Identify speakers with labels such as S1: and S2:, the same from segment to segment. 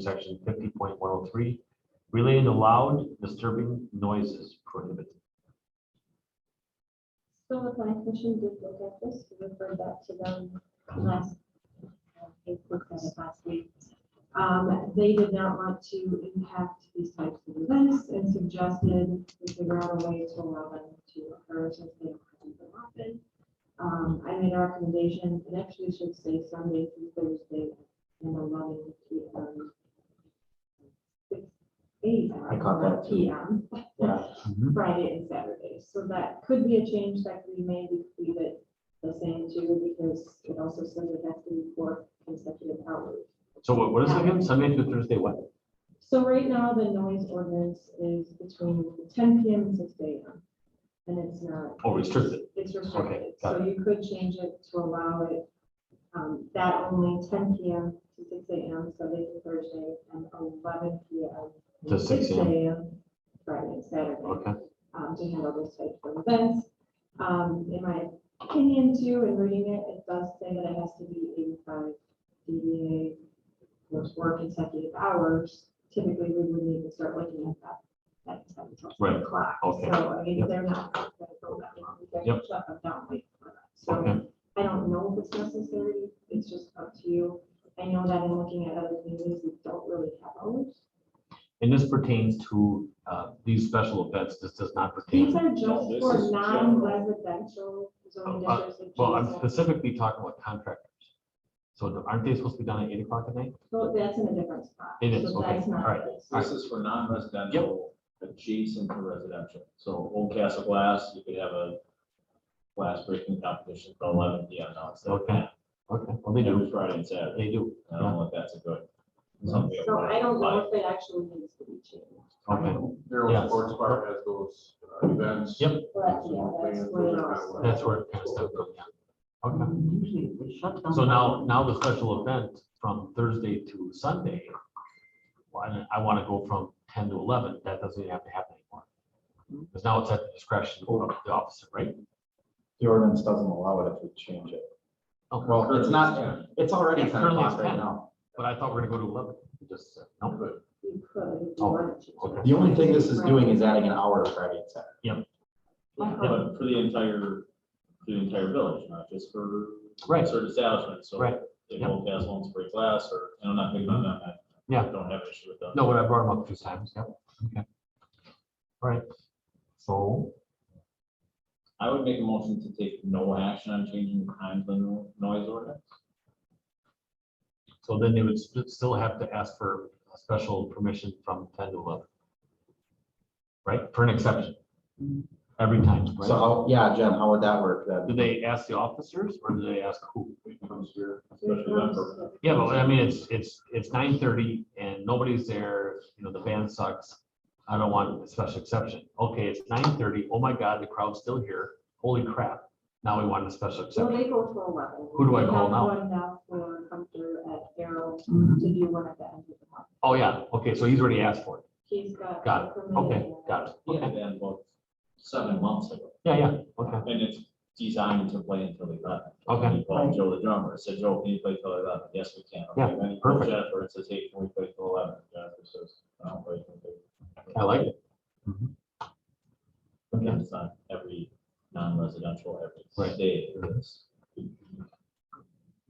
S1: section fifty point one oh three, relating to loud disturbing noises prohibited.
S2: So the planning commission did look at this, we referred that to them last, uh, they looked at it last week. Um, they did not want to impact these types of events and suggested we figure out a way to allow them to occur since they don't happen so often. Um, I made a recommendation, it actually should say Sunday through Thursday and eleven P M. Eight.
S1: I caught that too.
S2: P M.
S1: Yeah.
S2: Friday and Saturday. So that could be a change that could be made, we could leave it the same too, because it also says it has to be four consecutive hours.
S1: So what, what is it again? Sunday through Thursday, what?
S2: So right now, the noise ordinance is between ten PM and six AM. And it's not,
S1: Oh, restricted.
S2: it's
S1: Okay,
S2: restricted,
S1: got
S2: so you could change it to allow it, um, that only ten PM to six AM, Sunday to Thursday, and eleven PM.
S1: To 6 a.m..
S2: Friday and Saturday.
S1: Okay.
S2: um, to handle those types of events. Um, in my opinion too, in reading it, it does say that it has to be eighty-five DVA, those work consecutive hours. Typically, we would need to start looking at that, at ten to
S1: Right.
S2: twelve o'clock.
S1: Okay.
S2: So, I mean,
S1: Yep.
S2: they're not gonna go that long. They're
S1: Yep.
S2: shut them down late for that. So,
S1: Okay.
S2: I don't know if it's necessary, it's just up to you. I know that in looking at other communities, we don't really have hours.
S1: And this pertains to, uh, these special events. This does not
S2: These
S1: pertain.
S2: are just
S3: this
S2: for
S3: is general.
S2: non-residential zoning
S1: Uh, uh,
S2: districts. and
S1: Well, I'm
S2: GSOs.
S1: specifically talking about contractors. So aren't they supposed to be done at eight o'clock at night?
S2: So that's in a different spot.
S1: It is,
S2: So
S1: okay,
S2: that's not
S1: all right.
S2: this.
S3: This is for non-residential adjacent to residential. So Old Castle Glass, you could have a glass breaking competition for eleven P M. Now it's
S1: Okay. Okay, well, they do. Mm-hmm.
S3: every Friday and Saturday.
S1: They do.
S3: I
S2: Oh.
S3: don't know if that's a good.
S2: So I don't know if it actually needs to be changed,
S1: Okay. Yes.
S4: Daryl's Sports Bar has those uh, events.
S1: Yep.
S2: but yeah, that's what it also.
S1: That's where it kind of stepped up, yeah. Okay.
S5: Usually they shut down.
S1: So now, now the special event from Thursday to Sunday, well, I- I want to go from ten to eleven, that doesn't have to happen anymore.
S5: Mm-hmm.
S1: Because now it's at the discretion of the officer, right?
S6: The ordinance doesn't allow it if we change it.
S1: Oh,
S6: Well, it's not, it's already
S1: Yeah,
S6: ten
S1: currently
S6: o'clock
S1: it's
S6: right
S1: 10.
S6: now.
S1: But I thought we were going to go to eleven, You just, said no,
S2: You could. if you
S1: Oh,
S2: wanted to.
S1: okay.
S6: The only thing this is doing is adding an hour of Friday and Saturday.
S3: But for the entire, the entire village, not just for.
S1: Right.
S3: Certain establishments, so.
S1: Right.
S3: If
S1: Yep.
S3: Old Castle wants to break glass or, and I'm not big on that. I
S1: Yeah.
S3: Don't have an issue with that.
S1: no, but I brought him up a few times, yeah, okay. All right, so,
S3: I would make a motion to take no action on changing the time of the no- noise ordinance.
S1: so then they would st- still have to ask for a special permission from ten to eleven. Right, for an exception.
S5: Mm-hmm.
S1: Every time, right?
S6: So, how- yeah, Jen, how would that work then?
S1: Do they ask the officers or do they ask who?
S3: Especially that for-
S1: Yeah, but I mean, it's, it's, it's nine thirty and nobody's there, you know, the band sucks. I don't want a special exception. Okay, it's nine thirty. Oh my God, the crowd's still here. Holy crap. Now we want a special
S2: So they
S1: exception.
S2: go to eleven.
S1: Who do I
S2: We
S1: call
S2: have
S1: now? Mm-hmm.
S2: One now for come through at Carroll
S5: Mhm.
S2: to do one at the end of the month.
S1: Oh, yeah. Okay, so he's already asked for it.
S2: He's got.
S1: Got Okay, got it.
S3: Yeah,
S1: Okay.
S3: then about seven months ago,
S1: Yeah, yeah, okay.
S3: and it's designed to play until they left.
S1: Okay.
S3: He called Joe the drummer, and said, Joe, can you play till eleven? Yes, we can. Okay,
S1: Yeah,
S3: then he
S1: perfect.
S3: calls Jennifer and says, hey, can we play till eleven? Jennifer says, I don't play till
S1: I like it.
S3: eleven. And it's not every non-residential, every
S1: Right.
S3: day. it's-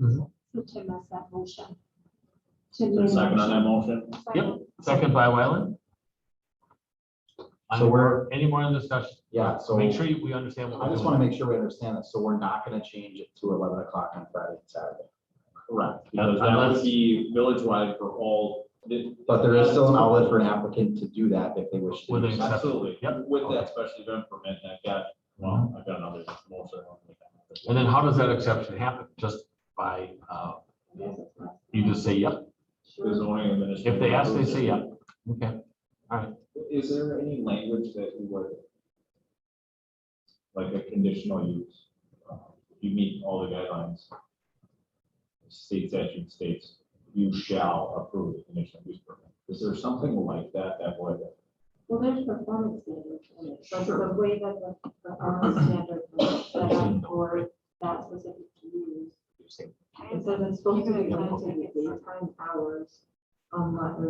S2: So Tim has that motion.
S3: Is there a second on that motion?
S1: Yep. Second by Wyland.
S6: So we're-
S1: Any more in discussion?
S6: Yeah, so
S1: Make sure you- we understand what
S6: I
S1: we're
S6: just want
S1: doing.
S6: to make sure we understand this. So we're not going to change it to eleven o'clock on Friday and Saturday.
S3: Correct. Because that
S1: Unless-
S3: would be village-wide for all.
S6: But there is still an outlet for an applicant to do that if they wish to.
S1: With
S6: do
S1: an
S6: so.
S1: exception.
S3: Absolutely.
S1: Yep.
S3: With that special event permit, I've got, well, I've got another motion.
S1: And then how does that exception happen? Just by, uh, you just say, yep,
S3: There's only a minute.
S1: If they ask, they say yeah. Okay,
S3: Is there any language that you would? Like a conditional use, uh, you meet all the guidelines. State statute states, you shall approve the conditional use permit. Is there something like that that would?
S2: Well, there's performance standards in it, but the
S3: Sure.
S2: way that the performance standard was set up for that specific use. It says it's supposed to be
S1: Yeah,
S2: done
S1: okay.
S2: in daytime hours um, lot